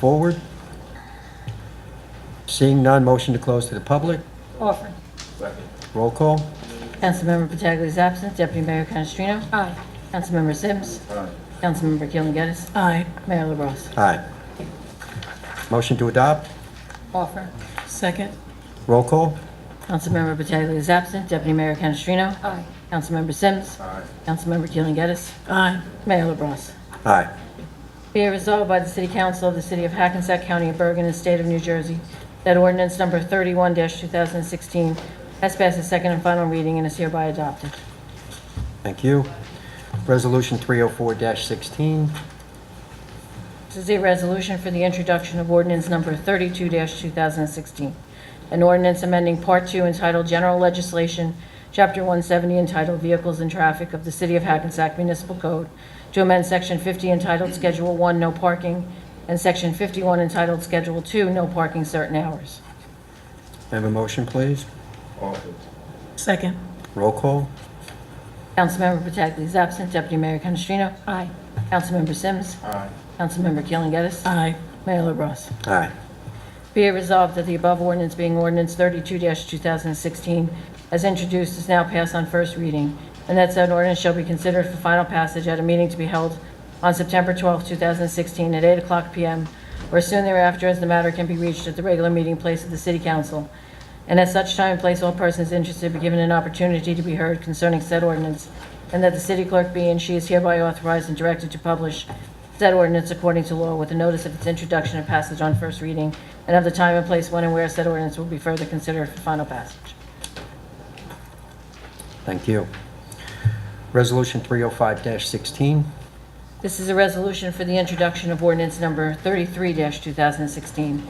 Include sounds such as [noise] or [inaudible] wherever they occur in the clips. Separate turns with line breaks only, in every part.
forward? Seeing none, motion to close to the public.
Offer.
Roll call.
Councilmember Pataglia is absent. Deputy Mayor Canestrino?
Aye.
Councilmember Sims? Aye. Councilmember Keeling Geddis?
Aye.
Mayor LaBrus?
Aye. Motion to adopt.
Offer. Second.
Roll call.
Councilmember Pataglia is absent. Deputy Mayor Canestrino?
Aye.
Councilmember Sims? Aye. Councilmember Keeling Geddis?
Aye.
Mayor LaBrus?
Aye.
Be it resolved by the City Council of the City of Hackensack County of Bergen and State of New Jersey that ordinance number 31-2016 has passed its second and final reading and is hereby adopted.
Thank you. Resolution 304-16.
This is a resolution for the introduction of ordinance number 32-2016, an ordinance amending Part 2 entitled General Legislation, Chapter 170 entitled Vehicles and Traffic of the City of Hackensack Municipal Code to amend Section 50 entitled Schedule 1 No Parking and Section 51 entitled Schedule 2 No Parking Certain Hours.
Have a motion, please.
Second.
Roll call.
Councilmember Pataglia is absent. Deputy Mayor Canestrino?
Aye.
Councilmember Sims? Aye. Councilmember Keeling Geddis?
Aye.
Mayor LaBrus?
Aye.
Be it resolved that the above ordinance being ordinance 32-2016, as introduced, is now passed on first reading, and that said ordinance shall be considered for final passage at a meeting to be held on September 12, 2016, at 8:00 p.m. or soon thereafter, as the matter can be reached at the regular meeting place of the City Council, and at such time and place, all persons interested be given an opportunity to be heard concerning said ordinance, and that the city clerk be and she is hereby authorized and directed to publish said ordinance according to law with a notice of its introduction and passage on first reading, and of the time and place when and where said ordinance will be further considered for final passage.
Thank you. Resolution 305-16.
This is a resolution for the introduction of ordinance number 33-2016,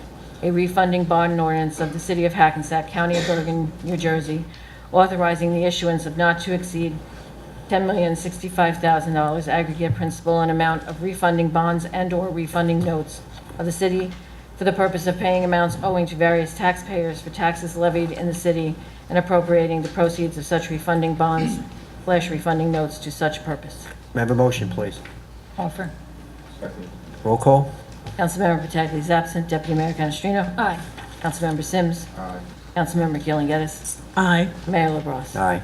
a refunding bond ordinance of the City of Hackensack, County of Bergen, New Jersey, authorizing the issuance of not to exceed $10,065,000 aggregate principal and amount of refunding bonds and/or refunding notes of the city for the purpose of paying amounts owing to various taxpayers for taxes levied in the city and appropriating the proceeds of such refunding bonds slash refunding notes to such purpose.
May I Have a motion, please.
Offer.
Roll call.
Councilmember Pataglia is absent. Deputy Mayor Canestrino?
Aye.
Councilmember Sims? Aye. Councilmember Keeling Geddis?
Aye.
Mayor LaBrus?
Aye.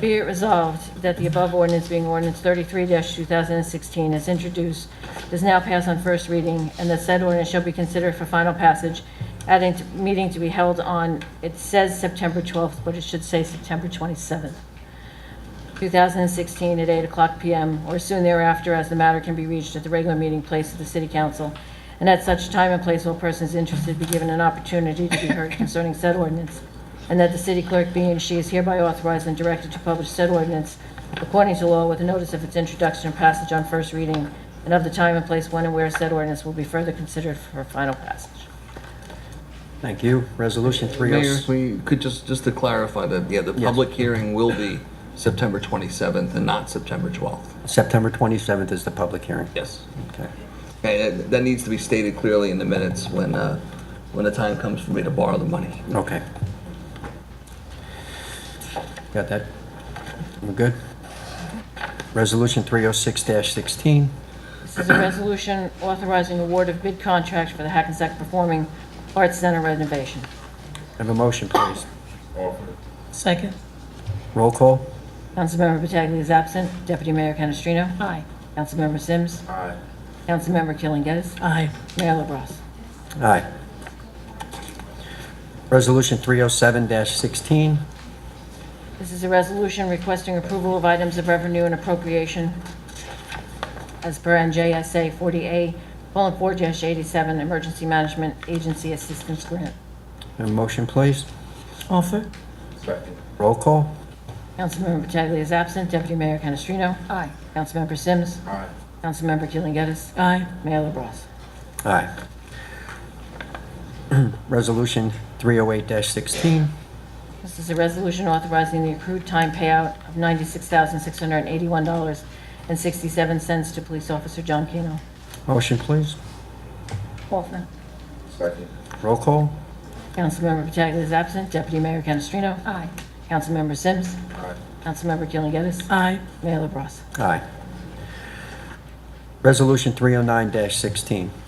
Be it resolved that the above ordinance being ordinance 33-2016 as introduced does now pass on first reading, and that said ordinance shall be considered for final passage at a meeting to be held on, it says September 12th, but it should say September 27th, 2016, at 8:00 PM or soon thereafter, as the matter can be reached at the regular meeting place of the City Council, and at such time and place all persons interested be given an opportunity to be heard concerning said ordinance, and that the city clerk be and she is hereby authorized and directed to publish said ordinance according to law with a notice of its introduction and passage on first reading, and of the time and place when and where said ordinance will be further considered for final passage.
Thank you. Resolution
Mayor,
30...
if we could just, just to clarify that, yeah, the public hearing will be September 27th and not September 12th.
September 27th is the public hearing.
Yes.
Okay.
Okay, that, that needs to be stated clearly in the minutes when, uh, when the time comes for me to borrow the money.
Okay. Got that? We're good? Resolution 306-16.
This is a resolution authorizing award of bid contract for the Hackensack Performing Arts Center renovation.
Have a motion, please.
Second.
Roll call.
Councilmember Pataglia is absent. Deputy Mayor Canestrino?
Aye.
Councilmember Sims? Aye. Councilmember Killen Gettis?
Aye.
Mayor LaBrus?
Aye. Resolution 307-16.
This is a resolution requesting approval of items of revenue and appropriation as per NJSA 40A, colon 4-87, Emergency Management Agency Assistance Grant.
Have a motion, please.
Offer.
Roll call.
Councilmember Pataglia is absent. Deputy Mayor Canestrino?
Aye.
Councilmember Sims? Aye. Councilmember Killen Gettis?
Aye.
Mayor LaBrus?
Aye. [clears throat] Resolution 308-16.
This is a resolution authorizing the accrued time payout of $96,681.67 to Police Officer John Keno.
Motion, please.
Offer.
Roll call.
Councilmember Pataglia is absent. Deputy Mayor Canestrino?
Aye.
Councilmember Sims? Aye. Councilmember Keeling Geddis?
Aye.
Mayor LaBrus?
oh Aye. Resolution 309-16.